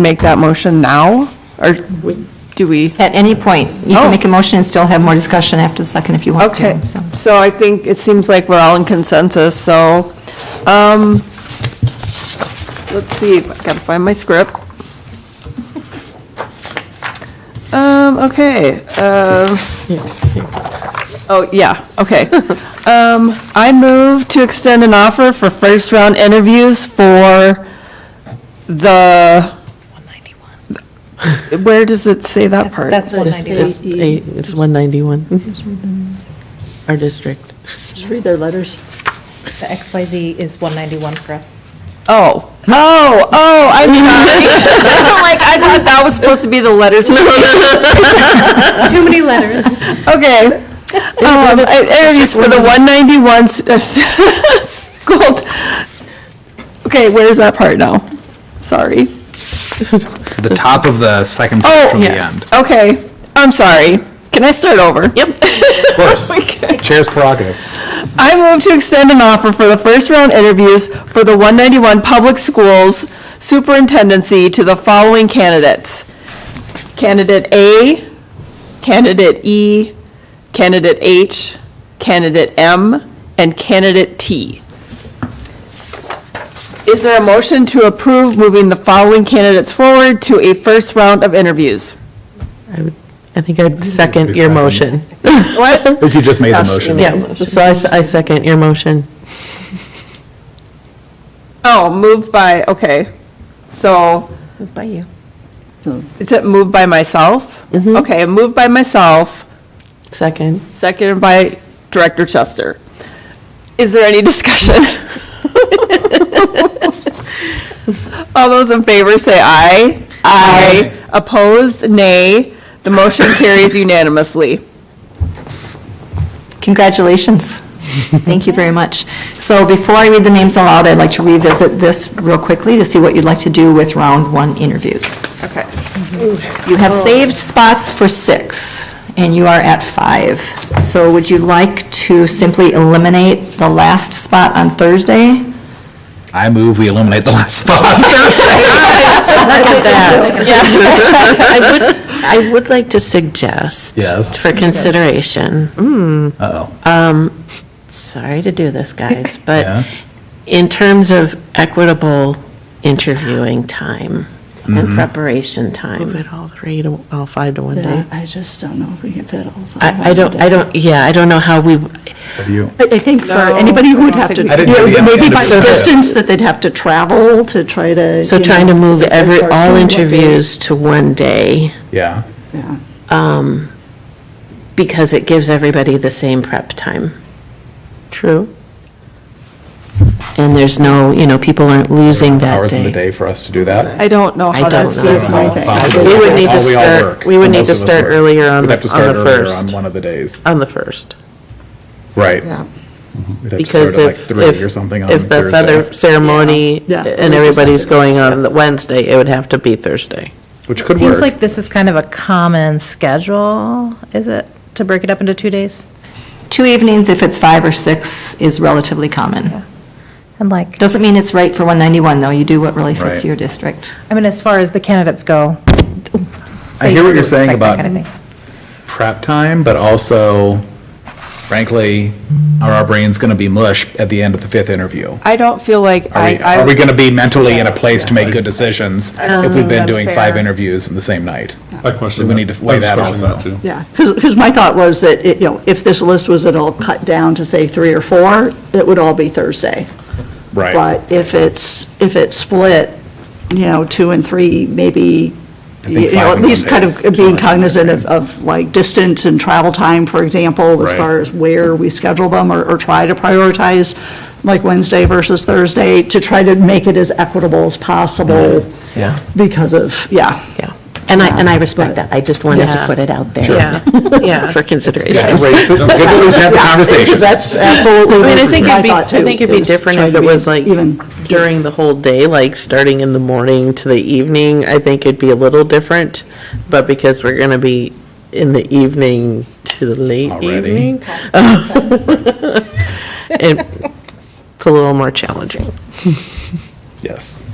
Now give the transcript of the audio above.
make that motion now, or do we? At any point, you Oh. can make a motion and still have more discussion after the second if you want Okay, to. so. so I think it seems like we're all in consensus, so, um, let's see, I gotta find my script. Um, okay, um, oh, yeah, okay. Um, I move to extend an offer for first-round interviews for the, where does it say that part? That's one Just ninety-one. It's eight- it's 191. Our district. Just read their letters. The XYZ is 191 for us. Oh, oh, oh, I'm sorry. I'm like, I thought that was supposed to be the letters. Too many letters. Okay. Um, it- it is for the 191 s- uh, s- school. Okay, where's that part now? Sorry. The top of the second page Oh, from the end. okay, I'm sorry. Can I start over? Yep. Oh Of course. Chair's prerogative. I move to extend an offer for the first round interviews for the 191 Public Schools Superintendency to the following candidates. Candidate A, Candidate E, Candidate H, Candidate M, and Candidate T. Is there a motion to approve moving the following candidates forward to a first round of interviews? I would, I think I'd second your motion. I think you just made the motion. Yeah, so I, s- I second your motion. Oh, moved by, okay, so. So- Moved by you. Is it moved by myself? Mm-hmm. Okay, moved by myself, Second. seconded by Director Chester. Is there any discussion? All those in favor say aye. Aye. Opposed, nay. The motion carries unanimously. Congratulations. Thank you very much. So before I read the names aloud, I'd like to revisit this real quickly to see what you'd like to do with round one interviews. Okay. You have Oh. saved spots for six, and you are at five. So would you like to simply eliminate the last spot on Thursday? I move we eliminate the last spot. I would, I would like to suggest. Yes. For consideration, Uh-oh. sorry to do this, guys, Yeah. but in terms of equitable interviewing time and preparation time. Move it all three to, all five to one Yeah, day. I just don't know if we can fit all five. Hmm? I, I don't, I don't, yeah, I don't know how we, Have you? I think for No, anybody who I would don't have to, think I didn't Yeah, do the maybe end by of it. distance that they'd have to travel to try to. so you trying to know, move get every, their cars all done, what days. interviews to one day. Yeah. Yeah. because it gives everybody the same prep time. True. And there's no, you know, people aren't losing that Hours in the day. day for us to do that. I don't know how I don't that's. know. That's my thing. I We would need How to we all start, work. we would need Most to of us start work. earlier on, We'd the have to start on the earlier on first. one of the days. On the first. Right. We'd have to start Because at like if, three if, or something on if the Thursday. feather ceremony Yeah. Yeah. and everybody's going on the Wednesday, it would have to be Thursday. Which could Seems work. like this is kind of a common schedule, is it, to break it up into two days? Two evenings, if it's five or six, is relatively common. And like, Doesn't mean it's right for 191, though. You do what really fits Right. your district. I mean, as far as the candidates go. I hear what you're saying about Kind of thing. prep time, but also frankly, are our brains going to be mush at the end of the fifth interview? I don't feel like Are I, we, are we I, going to be mentally in a place to make good decisions if we've been that's doing five fair. interviews in the same night? I question We that. need to weigh I was that questioning also. too. Yeah, because my thought was that, it- you know, if this list was at all cut down to say three or four, it would all be Thursday. Right. But if it's, if it's split, you know, two and three, maybe, think you know, five at and least one kind is too of being much. cognizant of, of like distance and travel time, for example, as Right. far as where we schedule them or, or try to prioritize, like Wednesday versus Thursday, to try to make it as equitable as possible. Yeah. Because of, yeah. Yeah. And I, and Um, I respect that, I just wanted Yeah. to put it out there. Yeah, yeah, for consideration. Yeah, right. Good that we've had the conversation. That's absolutely I mean, I my think it'd be, I thought, too. think it'd be is different try if to it be was like Even, during the whole day, like starting in the morning to the evening, I think it'd be a little different. But because we're gonna be in the evening to the late Already. evening. it- It's a little more challenging. Yes.